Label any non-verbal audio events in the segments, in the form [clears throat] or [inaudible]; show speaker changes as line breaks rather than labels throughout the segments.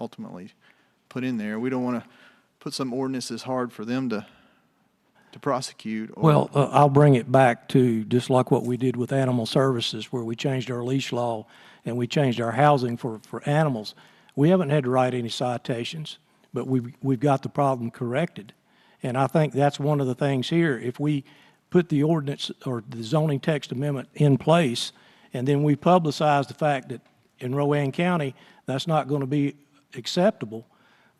ultimately put in there. We don't want to put some ordinance that's hard for them to, to prosecute. or-
Well, uh, I'll bring it back to just like what we did with animal services, where we changed our leash law and we changed our housing for, for animals. We haven't had to write any citations, but we've, we've got the problem corrected. And I think that's one of the things here. If we put the ordinance or the zoning text amendment in place, and then we publicize the fact that in Rowan County, that's not going to be acceptable,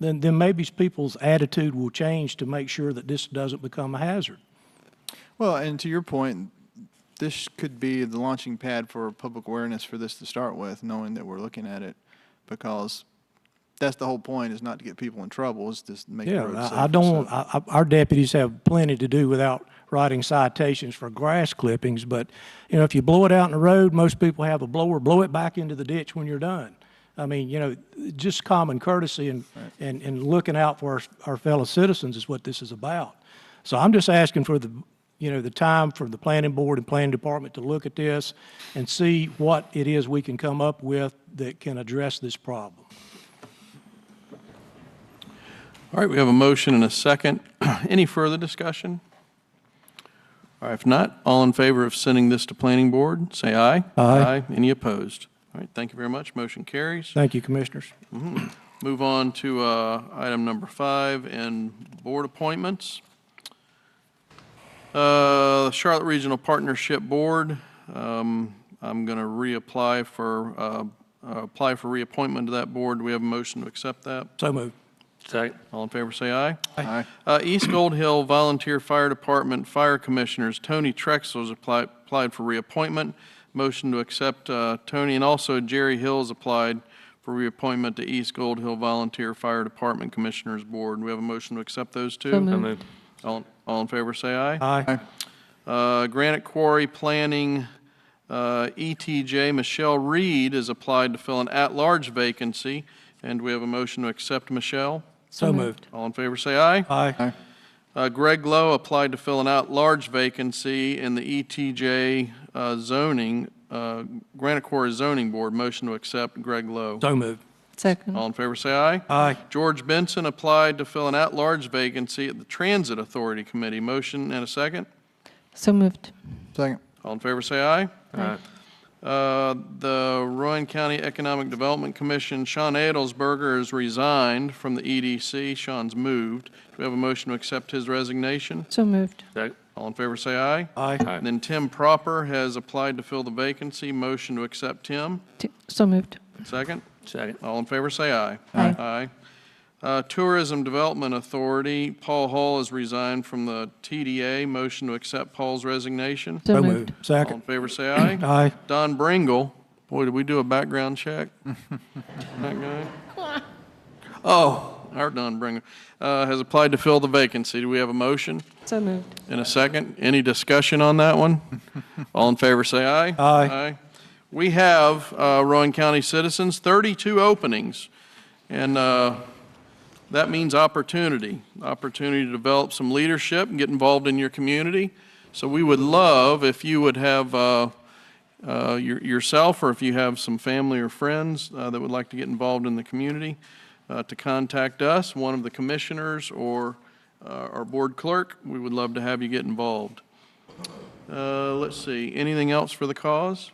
then, then maybe people's attitude will change to make sure that this doesn't become a hazard.
Well, and to your point, this could be the launching pad for public awareness for this to start with, knowing that we're looking at it, because that's the whole point is not to get people in trouble, is just make the
Yeah,
roads
I- I
safer.
don't,
So-
I, I- our deputies have plenty to do without writing citations for grass clippings, but, you know, if you blow it out in the road, most people have a blower, blow it back into the ditch when you're done. I mean, you know, just common courtesy and, and, and looking out for our, our fellow citizens is what this is about. So I'm just asking for the, you know, the time for the planning board and planning department to look at this and see what it is we can come up with that can address this problem.
All right, we have a motion and a second. [clears throat] Any further discussion? All right, if not, all in favor of sending this to planning board, say aye.
Aye.
Any opposed? All right, thank you very much. Motion carries.
Thank you, commissioners.
Move on to uh, item number five and board appointments. Uh, Charlotte Regional Partnership Board, um, I'm going to reapply for, uh, uh, apply for reappointment to that board. Do we have a motion to accept that?
So moved.
Second. All in favor, say aye.
Aye.
Uh, East Gold Hill Volunteer Fire Department Fire Commissioners, Tony Trexler has applied, applied for reappointment. Motion to accept, uh, Tony, and also Jerry Hill has applied for reappointment to East Gold Hill Volunteer Fire Department Commissioners Board. We have a motion to accept those two? All, all in favor, say aye.
Aye.
Uh, Granite Quarry Planning, uh, ETJ, Michelle Reed has applied to fill an at-large vacancy, and we have a motion to accept Michelle.
So moved.
All in favor, say aye.
Aye.
Uh, Greg Lowe applied to fill an at-large vacancy in the ETJ uh, zoning, uh, Granite Quarry Zoning Board. Motion to accept Greg Lowe.
So moved.
Second.
All in favor, say aye.
Aye.
George Benson applied to fill an at-large vacancy at the Transit Authority Committee. Motion and a second.
So moved.
Second.
All in favor, say aye. Uh, The Rowan County Economic Development Commission, Sean Adelsberger has resigned from the EDC. Sean's moved. Do we have a motion to accept his resignation?
So moved.
All in favor, say aye.
Aye.
And then Tim Proper has applied to fill the vacancy. Motion to accept Tim.
T- So moved.
Second?
Second.
All in favor, say aye.
Aye.
Aye. Uh, Tourism Development Authority, Paul Hall has resigned from the TDA. Motion to accept Paul's resignation.
So moved.
All in
Second.
favor, say aye.
Aye.
Don Bringle, boy, did we do a background check? [laughs] That guy? Oh, our Don Bringle, uh, has applied to fill the vacancy. Do we have a motion?
So moved.
In a second, any discussion on that one? All in favor, say aye.
Aye.
We have, uh, Rowan County citizens, 32 openings, and uh, that means opportunity, opportunity to develop some leadership and get involved in your community. So we would love if you would have uh, uh, your- yourself, or if you have some family or friends uh, that would like to get involved in the community, uh, to contact us, one of the commissioners or uh, our board clerk. We would love to have you get involved. Uh, Let's see, anything else for the cause?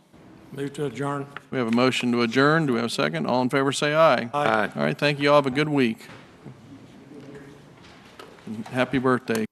Move to adjourn.
We have a motion to adjourn. Do we have a second? All in favor, say aye.
Aye.
All right, thank you. All have a good week. And Happy birthday.